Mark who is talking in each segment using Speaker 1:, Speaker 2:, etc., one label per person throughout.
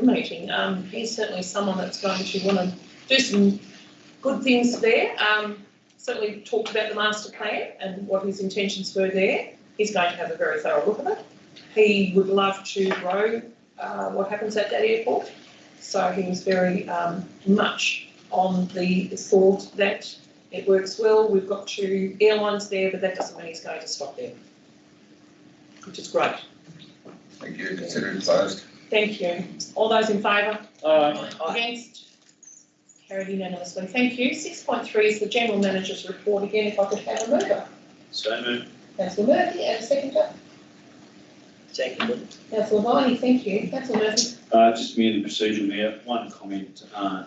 Speaker 1: coordinating. Um, he's certainly someone that's going to want to do some good things there. Um, certainly talked about the master plan and what his intentions were there. He's going to have a very thorough look at it. He would love to grow uh, what happens at that airport. So he was very um, much on the thought that it works well. We've got two airlines there, but that doesn't mean he's going to stop there, which is great.
Speaker 2: Thank you, consider it closed.
Speaker 1: Thank you. All those in favour?
Speaker 3: Aye.
Speaker 4: Oh,
Speaker 1: Against? Carried unanimously. Thank you. Six point three is the general manager's report. Again, if I could have a mover.
Speaker 3: So moved.
Speaker 1: Councillor Murphy, and a seconder.
Speaker 4: Second.
Speaker 1: Councillor Viney, thank you. Councillor Murphy.
Speaker 3: Uh, just merely procedural, Mayor, one comment, uh,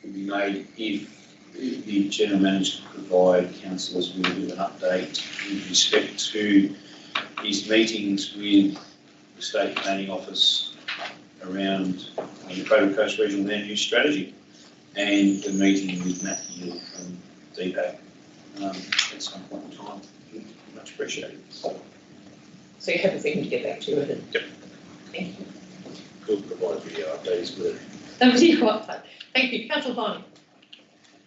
Speaker 3: can be made if the general manager could provide councillors with an update with respect to his meetings with the state planning office around uh, the Cobra Coast Regional Land Use Strategy and the meeting with Matt Hill from DPAC, um, at some point in time. Much appreciated.
Speaker 1: So you have a second to get back to it.
Speaker 3: Yep.
Speaker 1: Thank you.
Speaker 3: Could provide video updates, but
Speaker 1: That was your one. Thank you. Councillor Viney.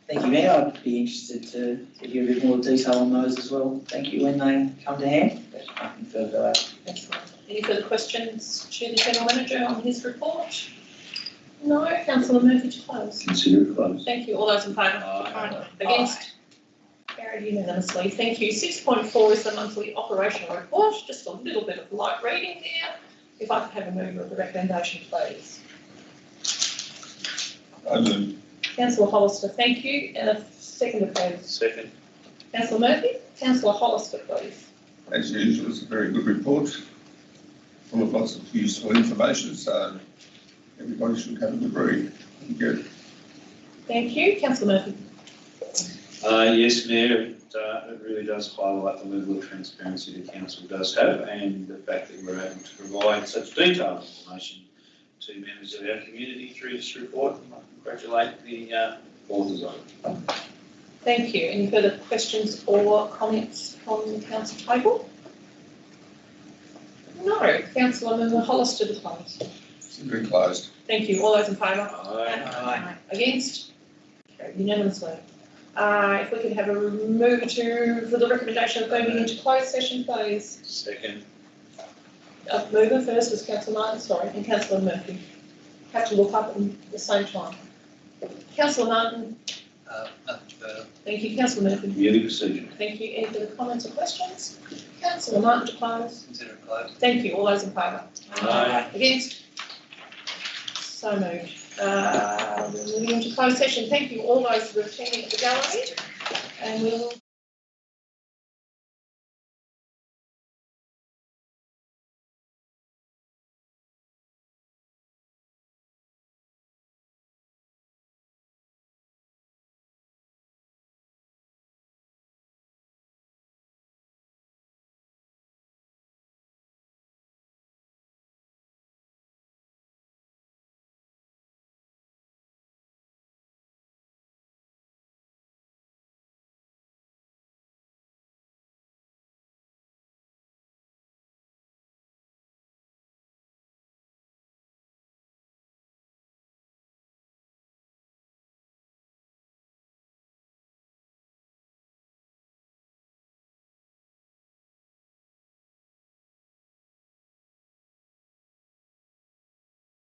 Speaker 4: Thank you, Mayor. I'd be interested to to hear a bit more detail on those as well. Thank you when they come to hand, but nothing further.
Speaker 1: Excellent. Any further questions to the general manager on his report? No. Councillor Murphy to close.
Speaker 3: consider it closed.
Speaker 1: Thank you. All those in favour?
Speaker 3: Uh,
Speaker 1: Aye. Against? Carried unanimously. Thank you. Six point four is the monthly operational report. Just a little bit of light reading there. If I could have a mover of the recommendation, please.
Speaker 2: I move.
Speaker 1: Councillor Hollister, thank you. And a second, please.
Speaker 3: Second.
Speaker 1: Councillor Murphy, councillor Hollister, please.
Speaker 2: As usual, it's a very good report, full of lots of useful information, so everybody should have a good read. Thank you.
Speaker 1: Thank you. Councillor Murphy.
Speaker 3: Uh, yes, Mayor, it, uh, it really does highlight the level of transparency the council does have and the fact that we're able to provide such detailed information to members of our community through this report. And I congratulate the, uh, authors on it.
Speaker 1: Thank you. Any further questions or comments from the council table? No. Councillor Member Hollister, to close.
Speaker 2: Consider it closed.
Speaker 1: Thank you. All those in favour?
Speaker 3: Aye.
Speaker 1: Against? Carried Unanimously. Uh, if we could have a move to, for the recommendation of going into closed session, please.
Speaker 3: Second.
Speaker 1: Uh, mover first was councillor Martin, sorry, and councillor Murphy. Have to look up at the same time. Councillor Martin,
Speaker 4: Uh, nothing further.
Speaker 1: thank you, councillor Murphy,
Speaker 3: Merely procedural.
Speaker 1: thank you. Any further comments or questions? Councillor Martin to close.
Speaker 4: Consider it closed.
Speaker 1: Thank you. All those in favour?
Speaker 3: Aye.
Speaker 1: Against? So moved. Uh, we're moving on to closed session. Thank you all those who are attending at the gallery. And we'll.